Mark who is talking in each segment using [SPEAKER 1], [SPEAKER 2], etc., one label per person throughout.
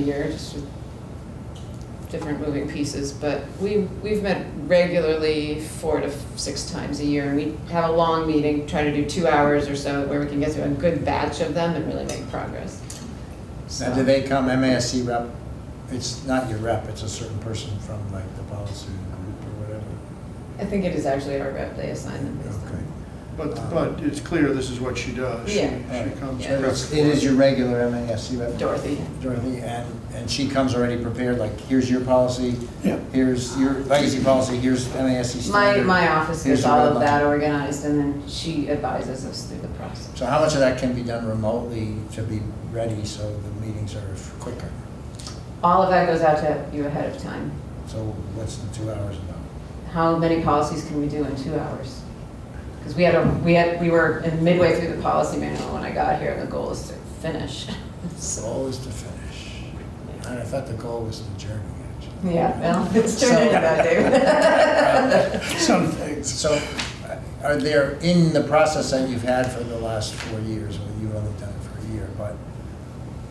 [SPEAKER 1] year, just with different moving pieces, but we, we've met regularly four to six times a year, and we have a long meeting, try to do two hours or so, where we can get through a good batch of them and really make progress.
[SPEAKER 2] Now, do they come, MASC rep, it's not your rep, it's a certain person from like the policy group or whatever?
[SPEAKER 1] I think it is actually our rep, they assign them based
[SPEAKER 2] Okay.
[SPEAKER 1] on.
[SPEAKER 3] But, but it's clear this is what she does. She-
[SPEAKER 1] Yeah.
[SPEAKER 3] She comes.
[SPEAKER 1] Yeah.
[SPEAKER 2] So it's- It is your regular MASC rep?
[SPEAKER 1] Dorothy,
[SPEAKER 2] Dorothy, and, and she comes already prepared, like, here's your policy,
[SPEAKER 3] Yeah.
[SPEAKER 2] here's your legacy policy, here's MASC
[SPEAKER 1] my,
[SPEAKER 2] standard.
[SPEAKER 1] my office
[SPEAKER 2] Here's
[SPEAKER 1] gets
[SPEAKER 2] the
[SPEAKER 1] all
[SPEAKER 2] red
[SPEAKER 1] of that
[SPEAKER 2] line.
[SPEAKER 1] organized, and then she advises us through the process.
[SPEAKER 2] So how much of that can be done remotely to be ready so the meetings are quicker?
[SPEAKER 1] All of that goes out to you ahead of time.
[SPEAKER 2] So what's the two hours about?
[SPEAKER 1] How many policies can we do in two hours? Because we had a, we had, we were in midway through the policy manual when I got here, and the goal is to finish.
[SPEAKER 2] The
[SPEAKER 1] So,
[SPEAKER 2] goal is to finish. And I thought the goal was the journey, actually.
[SPEAKER 1] yeah, well, it's turned into that, David.
[SPEAKER 2] Some things. So uh, are there, in the process that you've had for the last four years, well, you've only done it for a year, but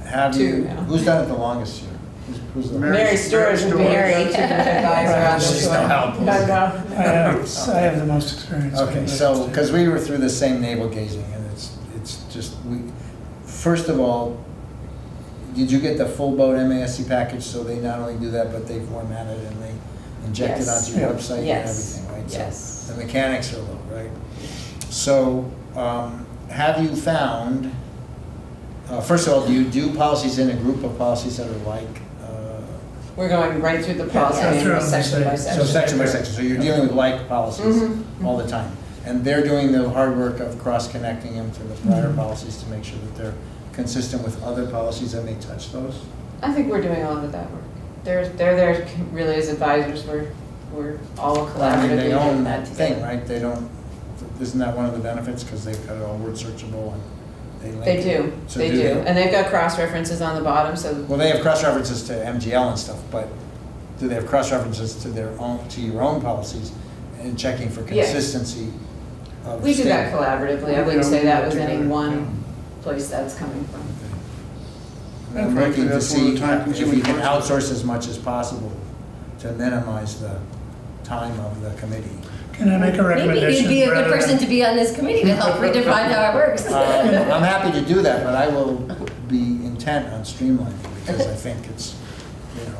[SPEAKER 2] have
[SPEAKER 1] Two
[SPEAKER 2] you,
[SPEAKER 1] now.
[SPEAKER 2] who's done it the longest here? Who's- Who's the?
[SPEAKER 3] Mary
[SPEAKER 1] Mary Storrs would be your
[SPEAKER 3] Storrs.
[SPEAKER 1] go-to advisor on this
[SPEAKER 2] She's no
[SPEAKER 1] one.
[SPEAKER 2] help.
[SPEAKER 4] I know. I have, I have the most experience. with
[SPEAKER 2] Okay,
[SPEAKER 4] it.
[SPEAKER 2] so, because we were through the same navel gazing, and it's, it's just, we, first of all, did you get the full boat MASC package, so they not only do that, but they format it and they inject it
[SPEAKER 1] Yes.
[SPEAKER 2] onto your website and
[SPEAKER 1] Yes.
[SPEAKER 2] everything, right? So
[SPEAKER 1] Yes.
[SPEAKER 2] The mechanics are low, right? So, um, have you found, uh, first of all, do you do policies in a group of policies that are like, uh,
[SPEAKER 1] We're going right through the policy
[SPEAKER 4] Yeah,
[SPEAKER 1] manual,
[SPEAKER 4] through
[SPEAKER 1] section by
[SPEAKER 4] them,
[SPEAKER 2] so
[SPEAKER 1] section.
[SPEAKER 2] section by section, so you're dealing with like policies
[SPEAKER 1] Mhm.
[SPEAKER 2] all the time. And they're doing the hard work of cross-connecting them to the prior
[SPEAKER 1] Mm-hmm.
[SPEAKER 2] policies to make sure that they're consistent with other policies that may touch those.
[SPEAKER 1] I think we're doing a lot of that work. They're, they're there really as advisors, we're, we're all
[SPEAKER 2] I mean,
[SPEAKER 1] collaboratively
[SPEAKER 2] they
[SPEAKER 1] doing
[SPEAKER 2] own
[SPEAKER 1] that
[SPEAKER 2] that thing,
[SPEAKER 1] together.
[SPEAKER 2] right? They don't, isn't that one of the benefits, because they've got it all word searchable and they link
[SPEAKER 1] They
[SPEAKER 2] it.
[SPEAKER 1] do,
[SPEAKER 2] So
[SPEAKER 1] they do, and they've got cross-references on the bottom, so
[SPEAKER 2] Well, they have cross-references to MGL and stuff, but do they have cross-references to their own, to your own policies and checking for
[SPEAKER 1] Yes.
[SPEAKER 2] consistency of
[SPEAKER 1] We do that
[SPEAKER 2] standard?
[SPEAKER 1] collaboratively, I
[SPEAKER 3] Yeah,
[SPEAKER 1] wouldn't say
[SPEAKER 3] we
[SPEAKER 1] that
[SPEAKER 3] work
[SPEAKER 1] was any
[SPEAKER 3] together,
[SPEAKER 1] one place that's coming from.
[SPEAKER 2] I'm
[SPEAKER 3] And
[SPEAKER 2] looking
[SPEAKER 3] frankly,
[SPEAKER 2] to
[SPEAKER 3] that's one of the
[SPEAKER 2] see if
[SPEAKER 3] time-consuming
[SPEAKER 2] we can
[SPEAKER 3] parts.
[SPEAKER 2] outsource as much as possible to minimize the time of the committee.
[SPEAKER 4] Can I make a
[SPEAKER 5] Maybe you'd
[SPEAKER 4] recommendation?
[SPEAKER 5] be a good
[SPEAKER 4] rather than-
[SPEAKER 5] person to be on this committee to help redefine how it works.
[SPEAKER 2] Um,
[SPEAKER 6] Uh,
[SPEAKER 2] I'm happy to do that, but I will be intent on streamlining because I think it's, you know,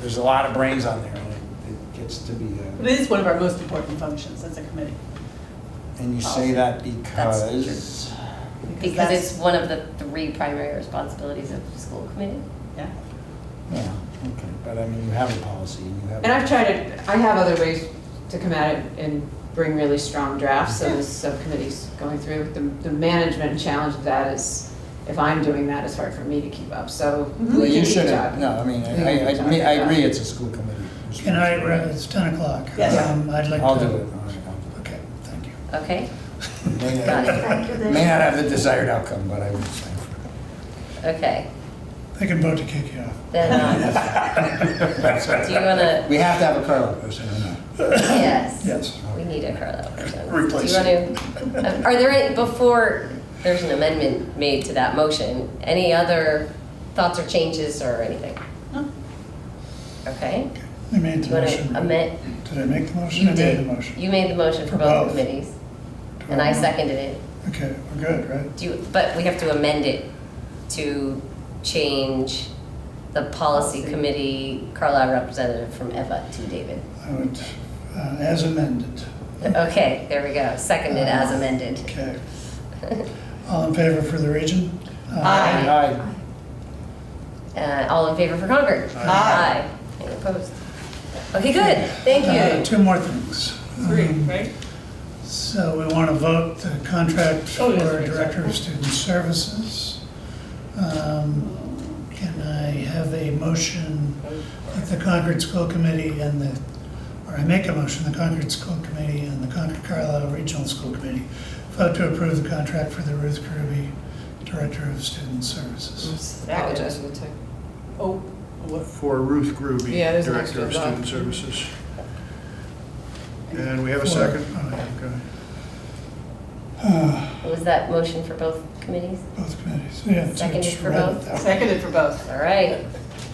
[SPEAKER 2] there's a lot of brains on there and it- it gets to be, uh,
[SPEAKER 6] But
[SPEAKER 2] a-
[SPEAKER 6] it is one of our most important functions as a committee.
[SPEAKER 2] and you say that because,
[SPEAKER 5] Because it's
[SPEAKER 6] that's-
[SPEAKER 5] one of the three primary responsibilities of the school committee.
[SPEAKER 6] Yeah.
[SPEAKER 2] yeah, okay, but I mean, you have a policy and you have.
[SPEAKER 1] And I've tried to, I have other ways to come at it and bring really strong drafts, so the subcommittee's going through. The, the management challenge of that is, if I'm doing that, it's hard for me to keep up, so
[SPEAKER 2] Well,
[SPEAKER 1] we
[SPEAKER 2] Mm-hmm. you
[SPEAKER 1] can keep
[SPEAKER 2] shouldn't,
[SPEAKER 1] talking.
[SPEAKER 2] no, I mean,
[SPEAKER 1] We can
[SPEAKER 2] I, I,
[SPEAKER 1] keep
[SPEAKER 2] I mean, I
[SPEAKER 1] talking.
[SPEAKER 2] agree it's a school committee.
[SPEAKER 4] Can I, it's 10 o'clock.
[SPEAKER 6] Yes.
[SPEAKER 4] Um, I'd like to.
[SPEAKER 2] I'll do it, all right, I'll
[SPEAKER 4] Okay, thank you.
[SPEAKER 5] Okay?
[SPEAKER 2] do it.
[SPEAKER 5] Got it.
[SPEAKER 2] May not have the desired outcome, but I would sign for it.
[SPEAKER 5] Okay.
[SPEAKER 4] They can vote to kick you off.
[SPEAKER 5] Then, um, do you want to,
[SPEAKER 2] We have to have a Carlo person, or not?
[SPEAKER 5] yes.
[SPEAKER 4] Yes.
[SPEAKER 5] We need a Carlisle person.
[SPEAKER 4] Replace
[SPEAKER 5] Do you want to, are there any, before there's an amendment made to that motion, any other thoughts or changes or anything?
[SPEAKER 6] No.
[SPEAKER 5] Okay?
[SPEAKER 4] I made the
[SPEAKER 5] Do you want to
[SPEAKER 4] motion.
[SPEAKER 5] amend?
[SPEAKER 4] Did I make the motion?
[SPEAKER 5] You
[SPEAKER 4] I made the
[SPEAKER 5] did.
[SPEAKER 4] motion.
[SPEAKER 5] You made the motion for
[SPEAKER 4] For
[SPEAKER 5] both
[SPEAKER 4] both.
[SPEAKER 5] committees,
[SPEAKER 4] Do
[SPEAKER 5] and I
[SPEAKER 4] want-
[SPEAKER 5] seconded it.
[SPEAKER 4] Okay, we're good, right?
[SPEAKER 5] Do, you- but we have to amend it to change the policy committee Carlisle representative from Eva to David.
[SPEAKER 4] I would, uh, as amended.
[SPEAKER 5] Okay, there we go, seconded as amended.
[SPEAKER 4] Okay. All in favor for the region?
[SPEAKER 5] Aye.
[SPEAKER 2] Aye.
[SPEAKER 5] Uh, all in favor for Concord?
[SPEAKER 4] Aye.
[SPEAKER 5] Aye. Any opposed? Okay, good, thank
[SPEAKER 4] Uh,
[SPEAKER 5] you.
[SPEAKER 4] Two more things.
[SPEAKER 6] Three,
[SPEAKER 4] Um,
[SPEAKER 6] right?
[SPEAKER 4] So we want to vote the contract
[SPEAKER 6] Oh,
[SPEAKER 4] for
[SPEAKER 6] yes, right,
[SPEAKER 4] Director
[SPEAKER 6] sorry.
[SPEAKER 4] of Student Services. Um, Can I have a motion that the Concord School Committee and the, or I make a motion, the Concord School Committee and the Concord Carlisle Regional School Committee vote to approve the contract for the Ruth Kirby Director of Student Services.
[SPEAKER 1] Apologize for the tech.
[SPEAKER 6] Oh, what?
[SPEAKER 3] For Ruth Grooby,
[SPEAKER 1] Yeah, there's an
[SPEAKER 3] Director of
[SPEAKER 1] extra dot.
[SPEAKER 3] Student Services. And we have
[SPEAKER 4] For-
[SPEAKER 3] a second?
[SPEAKER 4] oh, yeah.
[SPEAKER 3] Okay.
[SPEAKER 4] Uh,
[SPEAKER 5] Was that motion for both committees?
[SPEAKER 4] Both committees, yeah. so
[SPEAKER 5] Seconded
[SPEAKER 4] just
[SPEAKER 5] for
[SPEAKER 4] read it
[SPEAKER 5] both?
[SPEAKER 4] that way.
[SPEAKER 6] Seconded for both.
[SPEAKER 5] All right,